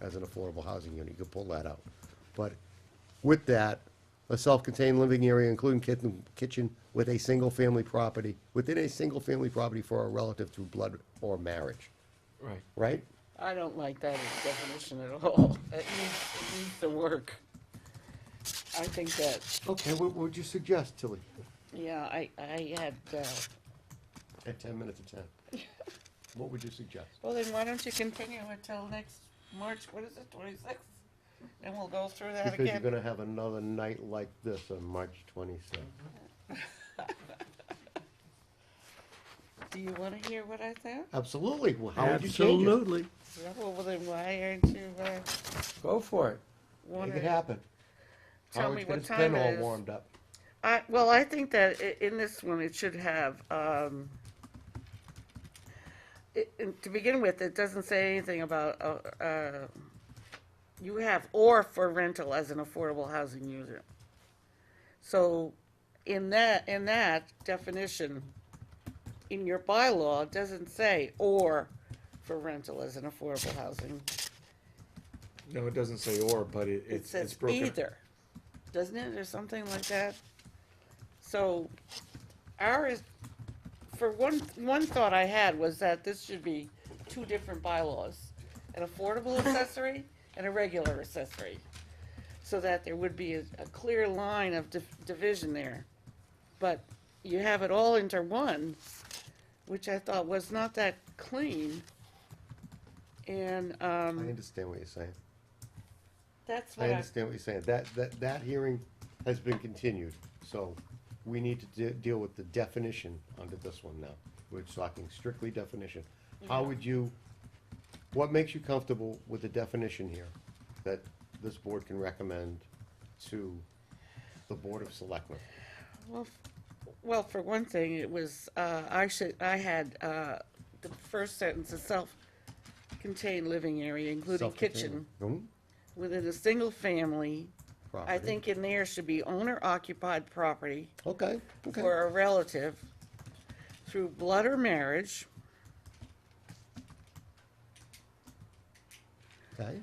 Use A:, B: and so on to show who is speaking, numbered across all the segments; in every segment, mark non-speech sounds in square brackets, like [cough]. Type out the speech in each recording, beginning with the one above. A: as an affordable housing unit, you could pull that out. But with that, a self-contained living area including kitchen, kitchen with a single-family property, within a single-family property for a relative through blood or marriage,
B: Right.
A: right?
C: I don't like that as definition at all. It needs, it needs to work. I think that,
B: Okay, what would you suggest, Tilly?
C: yeah, I, I had, uh,
A: At ten minutes to ten. [laughs] What would you suggest?
C: well, then why don't you continue until next March, what is it, twenty-sixth? And we'll go through that
A: Because you're
C: again.
A: gonna have another night like this on March twenty-sixth.
C: Do you wanna hear what I said?
A: Absolutely, well, how would Oh, you change it?
D: Absolutely.
C: Yeah, well, then why aren't you, uh,
B: Go for it.
A: Make it
C: wanna,
A: happen.
C: Tell
A: Howard's
C: me
A: got
C: what
A: his
C: time
A: pen
C: it
A: all
C: is.
A: warmed up.
C: I, well, I think that i- in this one, it should have, um, it, and to begin with, it doesn't say anything about, uh, uh, you have or for rental as an affordable housing user. So in that, in that definition, in your bylaw, it doesn't say or for rental as an affordable housing.
B: No, it doesn't say or, but it,
C: It
B: it's, it's
C: says
B: broken.
C: either, doesn't it, or something like that? So, our is, for one, one thought I had was that this should be two different bylaws.
B: [laughs]
C: An affordable accessory and a regular accessory. So that there would be a, a clear line of dif- division there. But you have it all into one, which I thought was not that clean. And,
A: I
C: um,
A: understand what you're saying.
C: that's
A: I
C: what I,
A: understand what you're saying. That, that, that hearing has been continued, so we need to de- deal with the definition under this one now. We're talking strictly definition. How would you, what makes you comfortable with the definition here that this board can recommend to the Board of Selectmen?
C: Well, f- well, for one thing, it was, uh, I should, I had, uh, the first sentence, a self-contained living area, including kitchen,
A: Self-contained.
C: within a single family.
A: Hmm?
C: I
A: Property.
C: think in there should be owner occupied property
A: Okay, okay.
C: for a relative through blood or marriage,
A: Okay,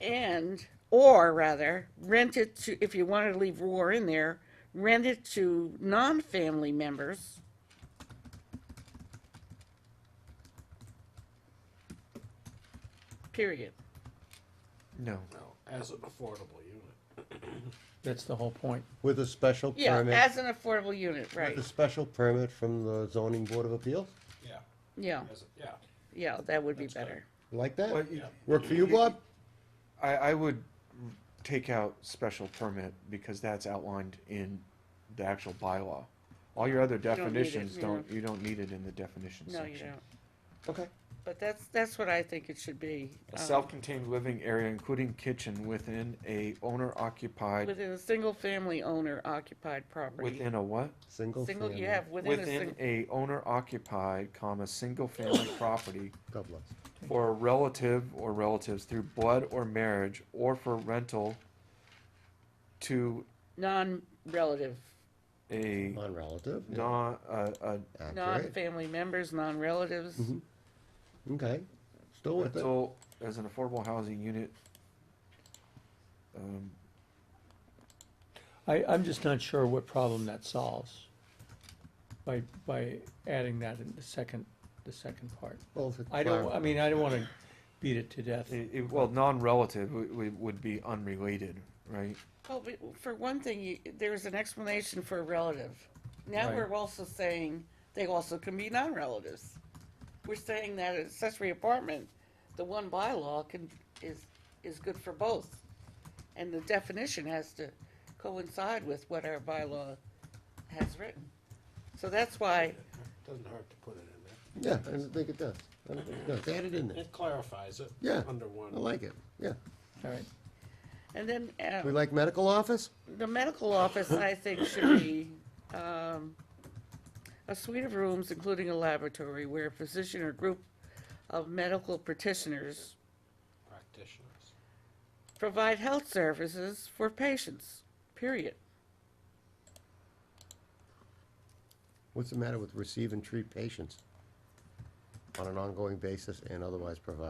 C: and, or rather, rent it to, if you wanted to leave war in there, rent it to non-family members. Period.
B: No.
E: as an affordable unit.
D: That's the whole point.
A: with a special
C: Yeah,
A: permit,
C: as an affordable unit, right.
A: with a special permit from the zoning board of appeals?
E: Yeah.
C: Yeah,
E: As, a- yeah.
C: yeah, that would be better.
A: You Like
B: Well,
A: that?
B: you-
A: Work for you, Bob?
B: I, I would take out special permit because that's outlined in the actual bylaw. All your other
C: don't need it,
B: definitions
C: yeah.
B: don't, you don't need it in the definition
C: No,
B: section.
C: you don't.
A: Okay.
C: But that's, that's what I think it should be.
B: A
C: um,
B: self-contained living area including kitchen within a owner occupied,
C: Within a single family owner occupied property.
B: within a what?
A: Single
C: Single,
A: family.
C: you have within a
B: Within
C: single,
B: a owner occupied, comma, single family property
A: God bless.
B: for a relative or relatives through blood or marriage or for rental to
C: non-relative,
B: a
A: Non-relative. yeah.
B: non, uh, uh,
A: Accurate.
C: non-family members, non-relatives.
A: Okay, still with it.
B: rental as an affordable housing unit. Um,
D: I, I'm just not sure what problem that solves by, by adding that in the second, the second part.
A: Well, if it
D: I don't,
A: clar-
D: I mean, I don't wanna beat it to death.
B: it- it- well, non-relative would, would- would be unrelated, right?
C: Well, we- for one thing, you- there's an explanation for a relative. Now
D: Right.
C: we're also saying they also can be non-relatives. We're saying that accessory apartment, the one bylaw can, is, is good for both. And the definition has to coincide with what our bylaw has written. So that's why,
E: Doesn't hurt to put it in there.
A: Yeah, I don't think it does. I don't think it does. Add it in there.
E: It clarifies it.
A: Yeah,
E: Under one.
A: I like it, yeah.
D: All right,
C: and then,
A: We
C: uh,
A: like medical office?
C: the medical office, I think, should be, um, a suite of rooms, including a laboratory, where a physician or group of medical practitioners
E: Practitioners.
C: provide health services for patients, period.
A: What's the matter with receive and treat patients on an ongoing basis and otherwise provide?